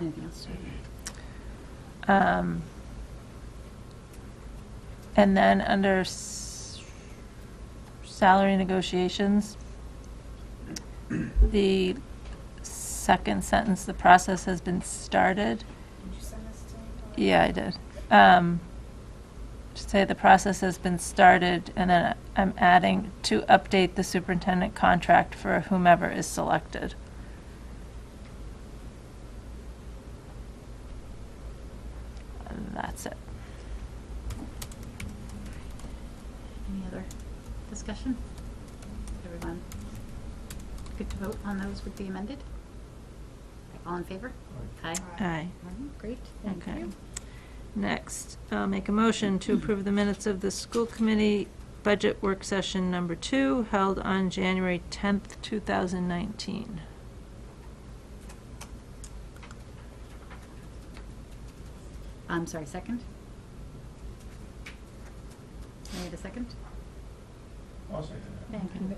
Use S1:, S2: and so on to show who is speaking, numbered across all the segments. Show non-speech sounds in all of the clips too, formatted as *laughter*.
S1: Anything else?
S2: Um, And then under s- salary negotiations, the second sentence, the process has been started.
S3: Did you send this to me? Laura?
S2: Yeah, I did. Um, Say the process has been started, and then I'm adding to update the superintendent contract for whomever is selected. And that's it. Um,
S1: Any other discussion? Everyone good to vote on those with the amended? All in favor? Aye.
S2: Aye.
S1: Mhm, Great, thank
S2: Okay.
S1: you.
S2: Next, I'll make a motion to approve the minutes of the school committee budget work session number two, held on January 10th, 2019.
S1: I'm sorry, second? I need a second?
S4: I'll second that.
S1: Thank you.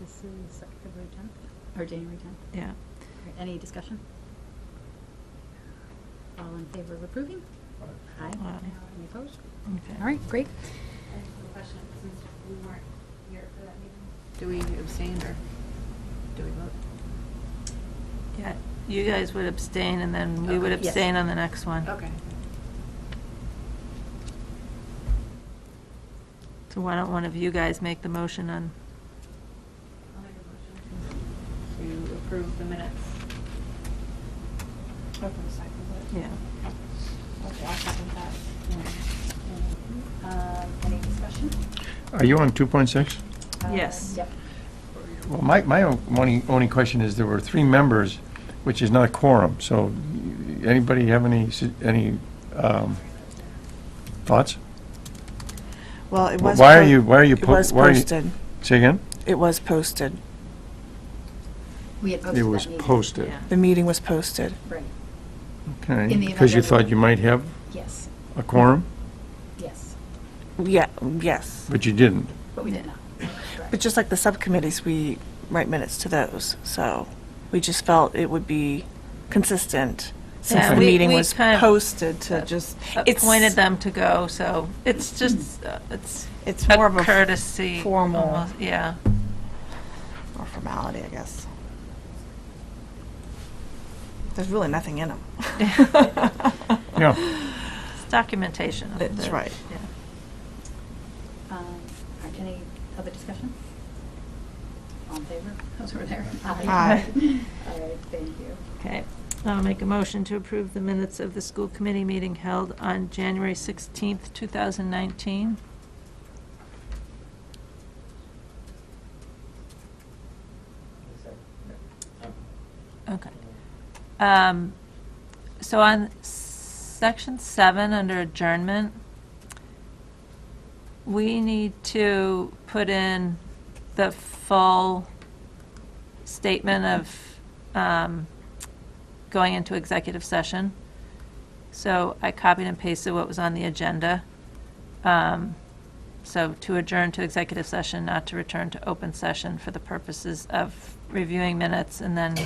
S1: This is February 10th, or January 10th.
S2: Yeah.
S1: Any discussion? All in favor of approving? Aye.
S2: Aye.
S1: Any opposed?
S2: Okay.
S1: All right, great.
S5: question, since we weren't here for that meeting.
S6: Do we abstain or do we vote?
S2: Yeah, you guys would abstain, and then we would
S6: Okay.
S1: Yes.
S2: abstain on the next one.
S6: Okay.
S2: So why don't one of you guys make the motion on,
S6: I'll make a motion to approve the minutes.
S2: yeah.
S5: Okay, I'll second that.
S1: Um, Any discussion?
S4: Are you on 2.6?
S1: Uh,
S2: Yes.
S1: Yep.
S4: Well, my, my only, only question is, there were three members, which is not a quorum, so anybody have any, s- any um, thoughts?
S7: Well, it was.
S4: Why are
S7: po-
S4: you, why are you?
S7: It
S4: po-
S7: was
S4: why are you-
S7: posted.
S4: Say again?
S7: It was posted.
S1: We had posted
S4: It
S1: that
S4: was
S1: meeting.
S4: posted.
S2: Yeah.
S7: The meeting was posted.
S1: Right,
S4: Okay,
S1: In the event
S4: because you
S1: that-
S4: thought you might have
S1: yes,
S4: a quorum,
S1: yes,
S7: Yeah, yes.
S4: but you didn't.
S1: but we did not.
S7: But just like the subcommittees, we write minutes to those, so we just felt it would be consistent since
S2: Yeah,
S7: the
S2: we-
S7: meeting
S2: we
S7: was
S2: kind of uh,
S7: posted to just. it's-
S2: Appointed them to go, so it's just, uh, it's
S7: It's
S2: a
S7: more of a
S2: courtesy.
S7: formal-
S2: almost, Yeah.
S7: Or formality, I guess. There's really
S2: *laughs*
S7: nothing in them.
S4: Yeah.
S7: *laughs*
S2: It's documentation. of
S7: That's
S2: the-
S7: right.
S2: yeah.
S1: Um, all right, Any other discussion? All in favor? *laughs* Those over there. Aye. *laughs* All right, thank you.
S2: Okay. I'll make a motion to approve the minutes of the school committee meeting held on January 16th, 2019. Okay. Um, So on section seven, under adjournment, we need to put in the full statement of um, going into executive session. So I copied and pasted what was on the agenda. Um, So to adjourn to executive session, not to return to open session for the purposes of reviewing minutes and then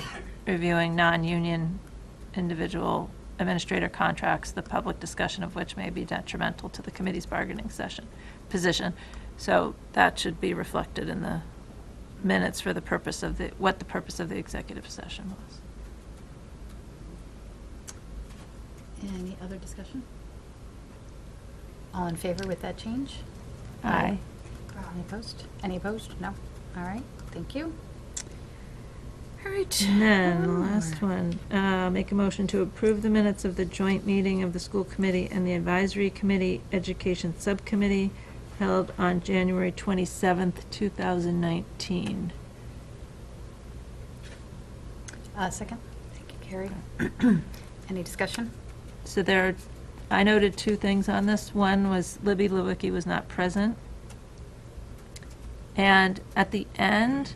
S2: reviewing non-union individual administrator contracts, the public discussion of which may be detrimental to the committee's bargaining session, position. So that should be reflected in the minutes for the purpose of the, what the purpose of the executive session was.
S1: Any other discussion? All in favor with that change?
S2: Aye.
S1: Any opposed? Any opposed? No? All right, thank you. All right.
S2: And then, the last one, uh, make a motion to approve the minutes of the joint meeting of the school committee and the advisory committee, education subcommittee, held on January 27th, 2019.
S1: Uh, Second? Thank you, Carrie. *clears throat* Any discussion?
S2: So there, are- I noted two things on this. One was Libby Lewicki was not present. And at the end,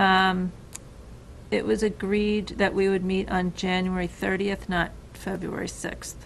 S2: um, it was agreed that we would meet on January 30th, not February 6th.